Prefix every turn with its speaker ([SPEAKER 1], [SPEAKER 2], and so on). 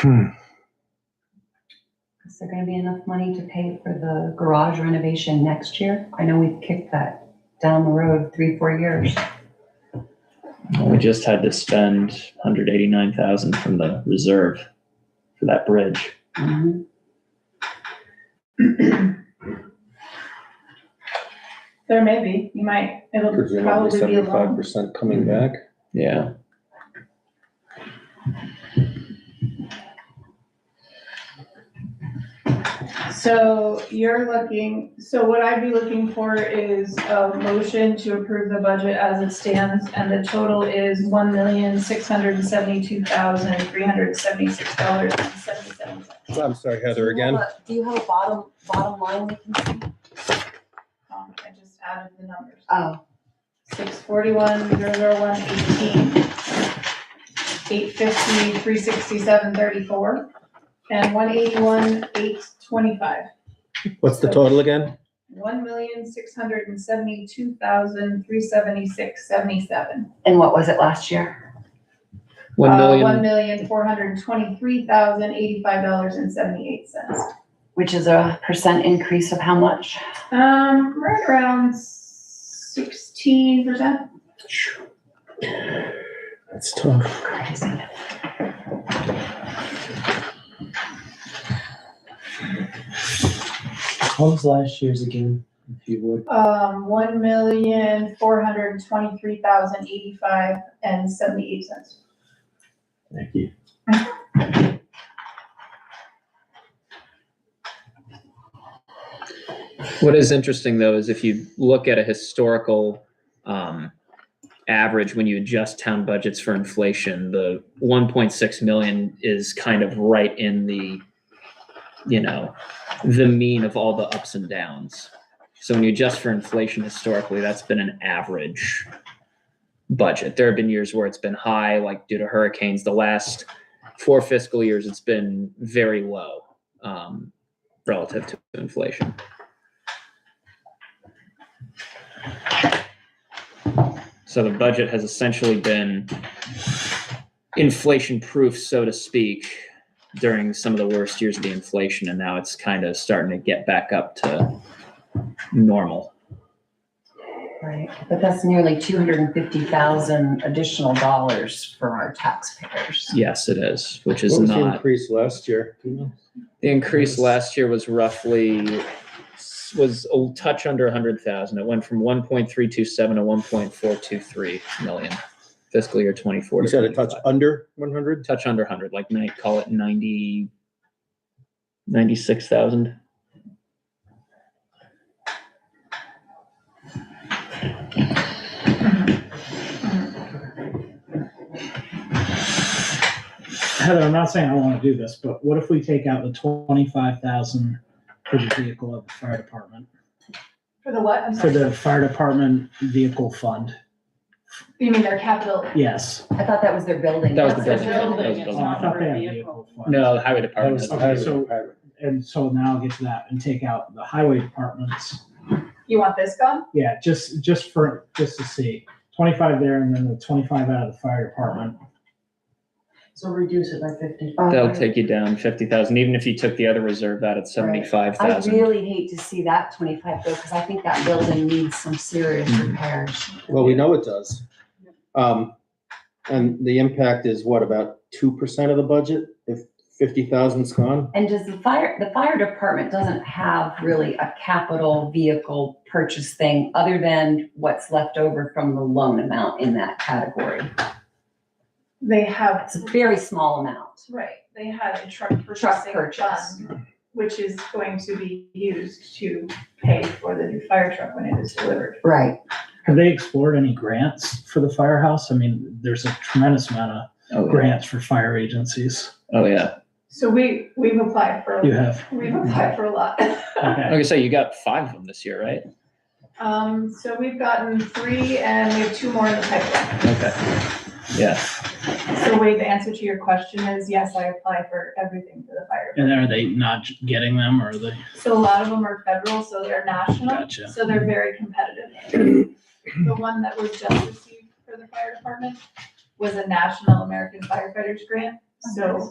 [SPEAKER 1] Hmm.
[SPEAKER 2] Is there gonna be enough money to pay for the garage renovation next year? I know we've kicked that down the road three, four years.
[SPEAKER 3] We just had to spend 189,000 from the reserve for that bridge.
[SPEAKER 2] Mhm.
[SPEAKER 4] There may be, you might, it'll probably be a
[SPEAKER 5] seventy-five
[SPEAKER 4] loan.
[SPEAKER 5] percent coming
[SPEAKER 2] Mm-hmm.
[SPEAKER 5] back.
[SPEAKER 3] Yeah.
[SPEAKER 4] So you're looking, so what I'd be looking for is a motion to approve the budget as it stands, and the total is one million, six hundred and seventy-two thousand, three hundred and seventy-six dollars and seventy-seven cents.
[SPEAKER 5] I'm sorry, Heather, again.
[SPEAKER 2] Do you have a bottom, bottom line we can see?
[SPEAKER 4] Um, I just added the numbers,
[SPEAKER 2] Oh,
[SPEAKER 4] six forty-one, zero zero one eighteen, eight fifty, three sixty-seven thirty-four, and one eighty-one, eight twenty-five.
[SPEAKER 5] What's the total again?
[SPEAKER 4] one million, six hundred and seventy-two thousand, three seventy-six, seventy-seven. Uh,
[SPEAKER 2] and what was it last year?
[SPEAKER 3] One
[SPEAKER 4] One
[SPEAKER 3] million,
[SPEAKER 4] million, four hundred and twenty-three thousand, eighty-five dollars and seventy-eight cents.
[SPEAKER 2] Which is a percent increase of how much?
[SPEAKER 4] Um, right around sixteen percent.
[SPEAKER 5] That's tough.
[SPEAKER 2] Crazy.
[SPEAKER 3] what was last year's again, if you would?
[SPEAKER 4] Um, one million, four hundred and twenty-three thousand, eighty-five and seventy-eight cents.
[SPEAKER 5] Thank you.
[SPEAKER 3] What is interesting though is if you look at a historical um, average, when you adjust town budgets for inflation, the 1.6 million is kind of right in the, you know, the mean of all the ups and downs. So when you adjust for inflation historically, that's been an average budget. There have been years where it's been high, like due to hurricanes. The last four fiscal years, it's been very low um, relative to inflation. So the budget has essentially been inflation proof, so to speak, during some of the worst years of the inflation. And now it's kind of starting to get back up to normal.
[SPEAKER 2] Right, but that's nearly two hundred and fifty thousand additional dollars for our taxpayers.
[SPEAKER 3] Yes, it is, which is
[SPEAKER 5] What was the
[SPEAKER 3] not.
[SPEAKER 5] increase last year?
[SPEAKER 3] The increase last year was roughly, was a touch under 100,000. It went from 1.327 to 1.423 million fiscal year 24.
[SPEAKER 5] You
[SPEAKER 3] to
[SPEAKER 5] said a touch
[SPEAKER 3] 25.
[SPEAKER 5] under one hundred?
[SPEAKER 3] touch under 100 like night call it 90 96000
[SPEAKER 6] Heather, I'm not saying I want to do this, but what if we take out the twenty-five thousand for the vehicle of the fire department?
[SPEAKER 4] For the what? I'm sorry.
[SPEAKER 6] For the fire department vehicle fund,
[SPEAKER 4] You mean their capital?
[SPEAKER 6] yes.
[SPEAKER 2] I thought that was their building.
[SPEAKER 3] That was the
[SPEAKER 4] That's
[SPEAKER 3] building.
[SPEAKER 4] their
[SPEAKER 3] That was
[SPEAKER 4] building.
[SPEAKER 3] the
[SPEAKER 6] Oh,
[SPEAKER 3] building.
[SPEAKER 6] I thought they had a vehicle fund.
[SPEAKER 3] no the highway department
[SPEAKER 6] Okay, so- And so now I'll get to that and take out the highway departments.
[SPEAKER 4] You want this gone?
[SPEAKER 6] Yeah, just, just for, just to see, twenty-five there and then the twenty-five out of the fire department.
[SPEAKER 7] So reduce it by fifty.
[SPEAKER 2] Oh,
[SPEAKER 3] that'll take you down 50000 even if you took the other reserve out at
[SPEAKER 2] I
[SPEAKER 3] 75000
[SPEAKER 2] really hate to see that twenty-five go, because I think that building needs some serious
[SPEAKER 3] Mm-hmm.
[SPEAKER 2] repairs.
[SPEAKER 5] Well, we know it does. Um, and the impact is what, about two percent of the budget if fifty thousand's gone?
[SPEAKER 2] And does the fire, the fire department doesn't have really a capital vehicle purchase thing other than what's left over from the loan amount in that category?
[SPEAKER 4] They have
[SPEAKER 2] It's a very small amount.
[SPEAKER 4] Right, they had a truck
[SPEAKER 2] Truck
[SPEAKER 4] purchasing
[SPEAKER 2] purchase.
[SPEAKER 4] fund, which is going to be used to pay for the new fire truck when it is delivered.
[SPEAKER 2] Right.
[SPEAKER 6] Have they explored any grants for the firehouse? I mean, there's a tremendous amount of
[SPEAKER 3] oh, yeah.
[SPEAKER 6] grants for fire agencies.
[SPEAKER 3] oh yeah
[SPEAKER 4] So we, we've applied for,
[SPEAKER 6] You have,
[SPEAKER 4] we've applied for a lot.
[SPEAKER 6] okay.
[SPEAKER 3] like i say you got five of them this year right
[SPEAKER 4] Um, so we've gotten three and we have two more in the pipeline.
[SPEAKER 3] okay yeah
[SPEAKER 4] So Wade, the answer to your question is yes, I apply for everything for the fire.
[SPEAKER 6] And are they not getting them or are they?
[SPEAKER 4] So a lot of them are federal, so they're national,
[SPEAKER 6] Gotcha.
[SPEAKER 4] so they're very competitive. The one that was just received for the fire department was a national American firefighters grant, so